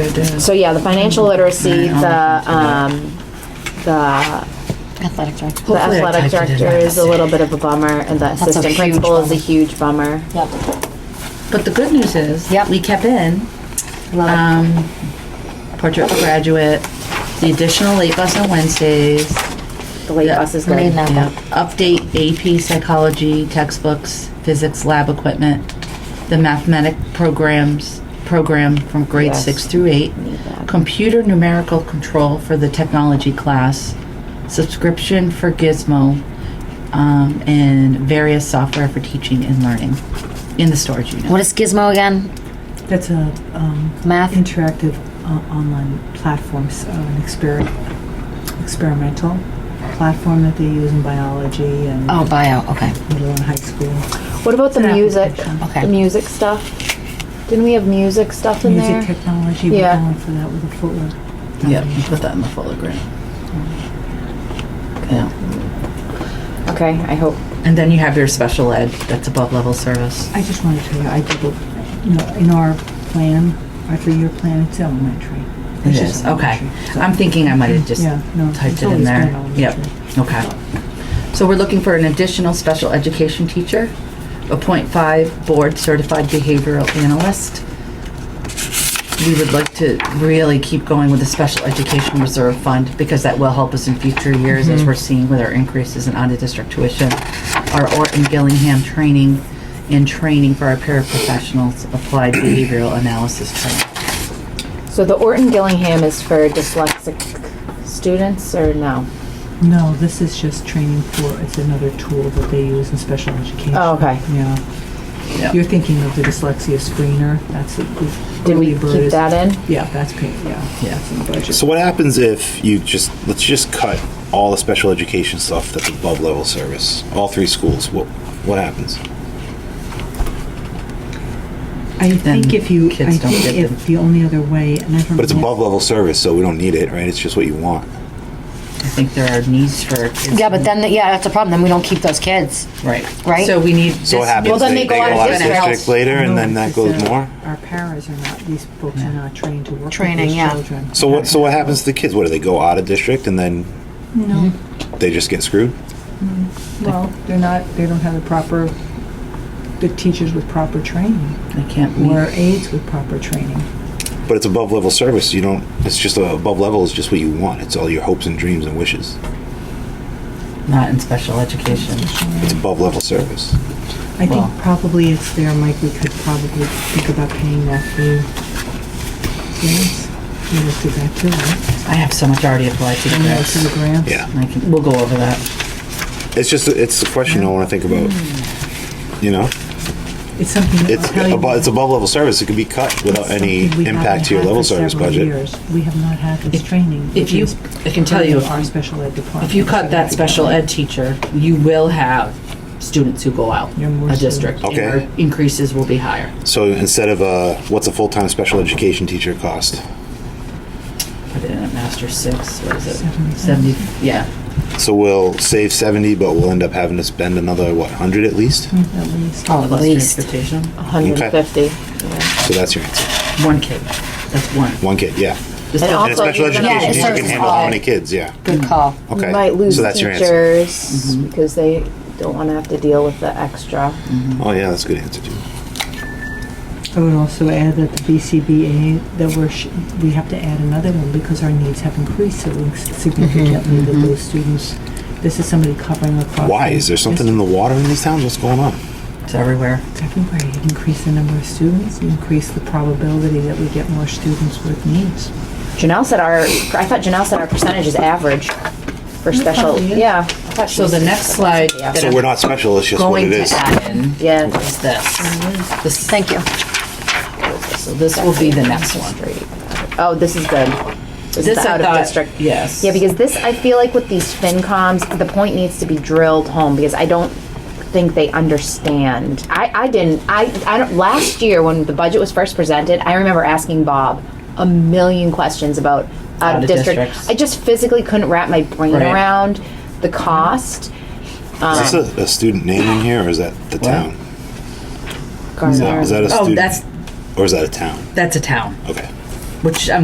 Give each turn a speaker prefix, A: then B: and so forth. A: it is.
B: So yeah, the financial literacy, the, um, the
C: Athletic director.
B: the
A: Hopefully I
B: athletic
A: typed it in
B: director is a
A: right.
B: little bit of a bummer, and the
C: a
B: assistant
C: huge
B: principal is a
C: bummer.
B: huge bummer.
C: Yep.
A: But the good news is,
C: Yep.
A: we kept in
C: Love
A: um, portrait for graduate, the additional late bus on Wednesdays,
B: The late
A: Yeah.
B: bus is
C: it. Made
B: good.
C: that
A: yeah,
C: one.
A: update AP psychology textbooks, physics lab equipment, the mathematic programs program from grade
B: Yes.
A: six through eight,
B: that.
A: computer numerical control for the technology class, subscription for Gizmo, um, and various software for teaching and learning in the storage unit.
C: What is Gizmo again?
D: That's a um,
C: Math?
D: interactive uh, online platform, so an exper- experimental platform that they use in biology and
C: Oh, bio. Okay.
D: middle and high school.
B: What about the
D: It's an
B: music?
D: application.
C: Okay.
B: The music stuff. Didn't we have music stuff in
D: Music
B: there?
D: technology, we're
B: Yeah.
D: going for that with a footwear.
A: Yep, you put that in the Fuller grant. Yeah,
B: Okay, I hope.
A: and then you have your special ed, that's above level service.
D: I just wanted to tell you, I did, it, you know, in our plan, our three-year plan, it's elementary.
A: It
D: It's just
A: is, okay.
D: elementary, so-
A: I'm thinking I might have just
D: Yeah, no,
A: typed
D: it's
A: it in
D: always
A: there.
D: been
A: Yep, okay. So we're looking for an additional special education teacher, a point five board certified behavioral analyst. We would like to really keep going with the special education reserve fund because that will help us in future years
D: Mm-hmm.
A: as we're seeing with our increases in out-of-district tuition. Our Orton Gillingham training and training for our paraprofessionals, applied behavioral analysis training.
B: So the Orton Gillingham is for dyslexic students, or no?
D: No, this is just training for, it's another tool that they use in special education.
B: Oh, okay.
D: Yeah.
A: Yeah.
D: You're thinking of the dyslexia screener, that's a good.
B: Did we keep that in?
D: Yeah, that's paid, yeah.
A: Yeah.
D: That's in the budget.
E: So what happens if you just let's just cut all the special education stuff that's above level service, all three schools? What what happens?
D: I think if you, I
A: kids don't
D: think
A: get them.
D: if the only other way, and I don't.
E: But it's
B: Mm.
D: know-
E: above level service, so we don't need it, right? It's just what you want.
A: I think there are needs for kids.
C: Yeah, but then, yeah, that's a problem. Then we don't keep those kids.
A: Right.
C: Right?
A: So we need.
E: So what
A: this-
E: happens?
B: Well, then they go out of district.
E: later, and
D: No,
E: then that
D: because
E: goes
D: our-
E: more.
D: uh, Our paras are not, these folks are not trained to work with
C: Training,
D: these
C: yeah.
D: children.
E: So what? So what happens to the kids? What do they go out of district and then
D: No,
E: they just get screwed?
D: well, they're not, they don't have the proper, the teachers with proper training,
A: They can't
E: Mm.
D: or
A: meet.
D: aides with proper training.
E: But it's above level service. You don't. It's just uh, above level is just what you want. It's all your hopes and dreams and wishes.
A: Not in special education.
E: It's above level service.
D: I
A: Well-
D: think probably it's there, Mike, we could probably think about paying that fee. Yes, we looked at that too, right?
A: I have so much already applied to the
D: And that's in the
A: grants.
D: grants.
E: Yeah.
A: I can, we'll go over that.
E: It's just it's a question I want to think about. You know,
D: It's something that
E: it's
D: I'll tell you.
E: above it's above level service. It could be cut without
D: It's
E: any
D: something we haven't
E: impact to your
D: had
E: level
D: for
E: service
D: several
E: budget.
D: years. We have not had this
A: If-
D: training.
A: if
D: which
A: you-
D: is
A: I can tell you
D: part of
A: if-
D: Our special ed department.
A: If you cut that
D: So
A: special ed teacher, you will have students who go out
D: Yeah, more
A: a district.
E: students.
A: and
E: Okay.
A: our Increases will be higher.
E: So instead of uh, what's a full time special education teacher cost?
A: Put it in at master six, what is it?
D: Seventy.
A: Seventy, yeah.
E: So we'll save seventy, but we'll end up having to spend another what hundred at least.
D: At least.
C: Oh, at
A: Plus
C: least.
A: Transportation,
B: 150.
E: So that's your answer.
A: one kid, that's one.
E: One kid, yeah.
A: Just don't-
B: And
E: And a
B: Also,
E: special
B: you're gonna-
E: education
C: Yeah, it
E: teacher
C: serves
E: can handle
C: all.
E: how many kids? Yeah.
C: Good call.
E: Okay.
B: You might lose
E: so that's your answer.
B: teachers
C: Mm-hmm.
B: because they don't want to have to deal with the extra.
E: Oh yeah, that's a good answer too.
D: I would also add that the BCBA, that we're, sh- we have to add another one because our needs have increased so
A: Mm-hmm.
D: significantly with those students. This is somebody covering across.
E: Why is there something in the water in these towns? What's going on?
A: It's everywhere.
D: It's everywhere. You increase the number of students, you increase the probability that we get more students with needs.
B: Janelle said our, I thought Janelle said our percentage is average for special,
D: probably is.
B: yeah. I thought she
A: So the
B: said
A: next
B: that.
A: slide
B: Yeah.
A: that
E: So we're not special. It's just what
A: Going
E: it
A: to
E: is.
A: add in
B: Yeah.
A: is this.
B: Mm-hmm.
A: This-
C: Thank you.
A: So this will be the next one.
B: Oh, this is good. This is
A: This
B: the
A: I
B: out of
A: thought-
B: district.
A: yes.
B: Yeah, because this, I feel like with these FinComs, the point needs to be drilled home because I don't think they understand. I, I didn't, I, I don't, last year when the budget was first presented, I remember asking Bob a million questions about out of
A: Out of
B: district.
A: districts.
B: I just physically couldn't wrap my brain
A: Right.
B: around the cost.
E: Is this a, a student name in here, or is that the town?
B: Gardner.
E: Is that a
A: Oh,
E: student?
A: that's,
E: or is that a town?
A: that's a town,
E: Okay.
A: which I'm